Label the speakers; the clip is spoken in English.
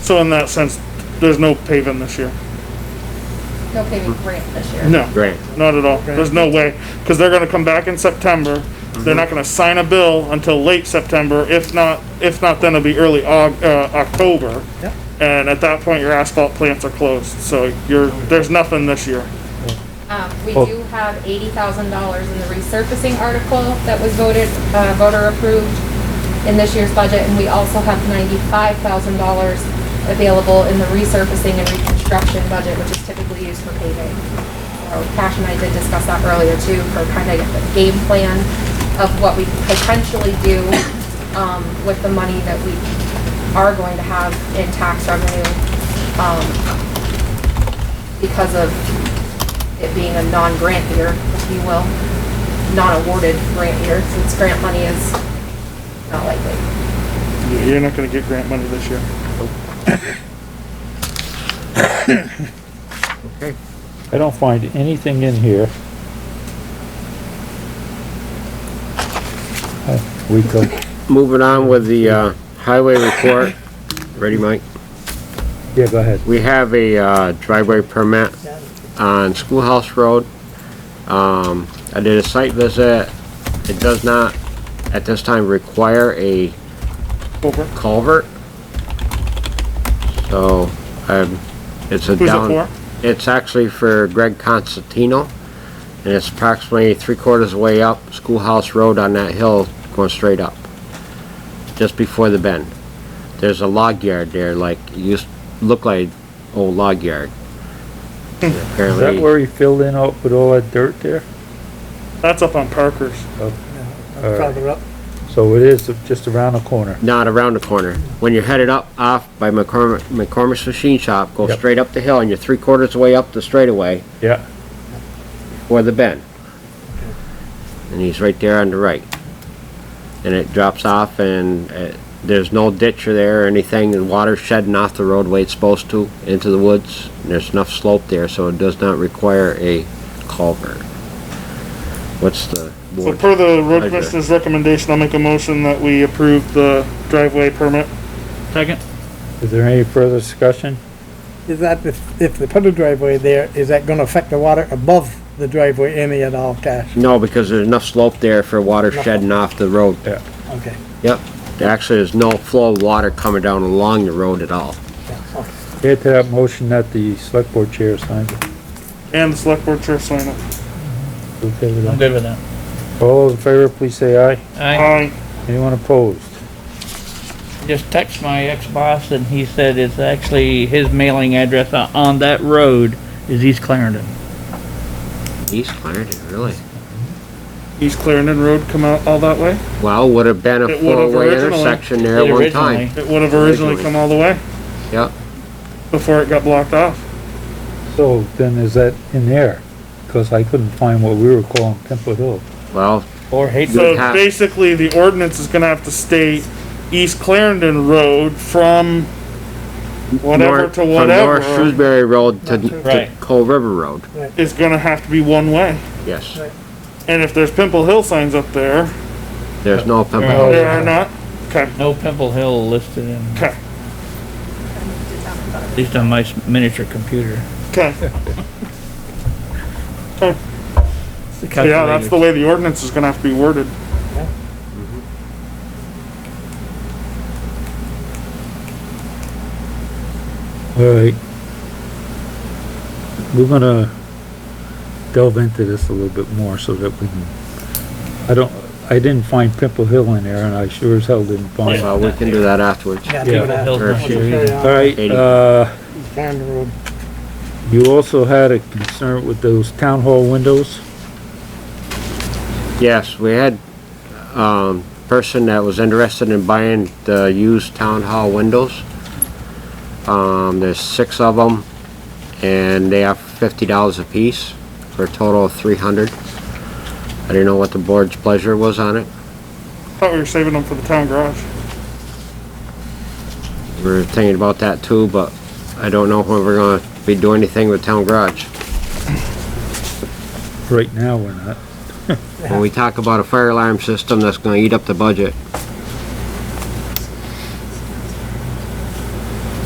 Speaker 1: So in that sense, there's no paving this year.
Speaker 2: No paving grant this year.
Speaker 1: No,
Speaker 3: Grant.
Speaker 1: not at all. There's no way, because they're gonna come back in September. They're not gonna sign a bill until late September, if not, if not, then it'll be early Aug, uh, October.
Speaker 4: Yep.
Speaker 1: And at that point, your asphalt plants are closed, so you're, there's nothing this year.
Speaker 2: Um, we do have eighty thousand dollars in the resurfacing article that was voted, uh, voter approved in this year's budget, and we also have ninety-five thousand dollars available in the resurfacing and reconstruction budget, which is typically used for paving. So Cash and I did discuss that earlier too, for kind of the game plan of what we potentially do, um, with the money that we are going to have in tax revenue, um, because of it being a non-grant year, if you will, non-awarded grant year, since grant money is not likely.
Speaker 1: You- You're not gonna get grant money this year.
Speaker 3: Okay.
Speaker 4: I don't find anything in here. Uh, We go,
Speaker 3: Moving on with the, uh, highway report. Ready, Mike?
Speaker 4: yeah, go ahead.
Speaker 3: We have a, uh, driveway permit on Schoolhouse Road. Um, I did a site visit. It does not, at this time, require a
Speaker 1: Over.
Speaker 3: culvert. So, um, it's a
Speaker 1: Who's it
Speaker 3: down.
Speaker 1: for?
Speaker 3: It's actually for Greg Constantino, and it's approximately three quarters way up Schoolhouse Road on that hill, going straight up, just before the bend. There's a log yard there, like, it used, look like old log yard. And
Speaker 4: Is that
Speaker 3: Apparently,
Speaker 4: where he filled in all, with all that dirt there?
Speaker 1: That's up on Parker's.
Speaker 4: Or-
Speaker 5: Farther up,
Speaker 4: So it is just around the corner.
Speaker 3: not around the corner. When you're headed up off by McCormick, McCormick's Machine Shop, go
Speaker 4: Yep.
Speaker 3: straight up the hill, and you're three quarters way up the straightaway,
Speaker 4: Yeah,
Speaker 3: or the bend. And he's right there on the right. And it drops off and uh, there's no ditch or there or anything, and water shedding off the road way it's supposed to, into the woods. And There's enough slope there, so it does not require a culvert. What's the
Speaker 1: So
Speaker 3: board?
Speaker 1: per the road
Speaker 3: Okay.
Speaker 1: commissioner's recommendation, I'll make a motion that we approve the driveway permit.
Speaker 6: Second?
Speaker 4: is there any further discussion?
Speaker 5: is that if, if they put a driveway there, is that gonna affect the water above the driveway any at all, Cash?
Speaker 3: No, because there's enough slope there for water shedding off the road.
Speaker 4: Yeah.
Speaker 5: Okay.
Speaker 3: Yep. There Actually, there's no flow of water coming down along the road at all.
Speaker 4: Add to that motion that the select board chair signed it.
Speaker 1: And the select board chair sign it.
Speaker 4: Okay with
Speaker 6: I'm
Speaker 4: that?
Speaker 6: good with that.
Speaker 4: All those in favor, please say aye.
Speaker 6: I
Speaker 1: Aye.
Speaker 4: Anyone opposed?
Speaker 6: just text my ex-boss and he said it's actually his mailing address on- on that road is East Clarendon.
Speaker 3: East Clarendon, really?
Speaker 1: East Clarendon Road come out all that way?
Speaker 3: Well, would have been a
Speaker 1: It would've
Speaker 3: four-way
Speaker 1: originally-
Speaker 3: intersection there at one time.
Speaker 6: Originally.
Speaker 1: It would have originally
Speaker 3: Originally.
Speaker 1: come all the way
Speaker 3: Yep.
Speaker 1: before it got blocked off.
Speaker 4: So then is that in there? Cause I couldn't find what we were calling Temple Hill.
Speaker 3: Well,
Speaker 6: Or Hayden.
Speaker 1: So
Speaker 3: would have-
Speaker 1: basically, the ordinance is gonna have to state East Clarendon Road from whatever
Speaker 3: north-
Speaker 1: to
Speaker 3: From North
Speaker 1: whatever
Speaker 3: Shrewsbury Road to, to
Speaker 6: Right.
Speaker 3: Coal River Road,
Speaker 1: is gonna have to be one way.
Speaker 3: yes.
Speaker 1: And if there's Pimple Hill signs up there,
Speaker 3: There's no
Speaker 6: Oh,
Speaker 3: Pembroke.
Speaker 1: there
Speaker 6: yeah.
Speaker 1: are not, okay,
Speaker 6: No Pimple Hill listed in,
Speaker 1: okay,
Speaker 6: at least on my s- miniature computer.
Speaker 1: okay.
Speaker 6: It's the
Speaker 1: Yeah, that's the
Speaker 6: calculator.
Speaker 1: way the ordinance is gonna have to be worded.
Speaker 4: Alright. We're gonna delve into this a little bit more so that we can, I don't, I didn't find Pimple Hill in there and I sure as hell didn't find it.
Speaker 3: Well, we can do that afterwards.
Speaker 4: Yeah.
Speaker 5: Yeah, do
Speaker 6: Pimple
Speaker 5: that.
Speaker 6: Hill's not
Speaker 3: Sure.
Speaker 6: listed.
Speaker 4: Alright,
Speaker 3: Katie.
Speaker 4: uh,
Speaker 5: Down the road.
Speaker 4: you also had a concern with those town hall windows?
Speaker 3: Yes, we had, um, person that was interested in buying the used town hall windows. Um, there's six of them, and they are fifty dollars a piece, for a total of three hundred. I didn't know what the board's pleasure was on it.
Speaker 1: Thought we were saving them for the town garage.
Speaker 3: We We're thinking about that too, but I don't know when we're gonna be doing anything with town garage.
Speaker 4: Right now, we're not.
Speaker 3: When we talk about a fire alarm system that's gonna eat up the budget,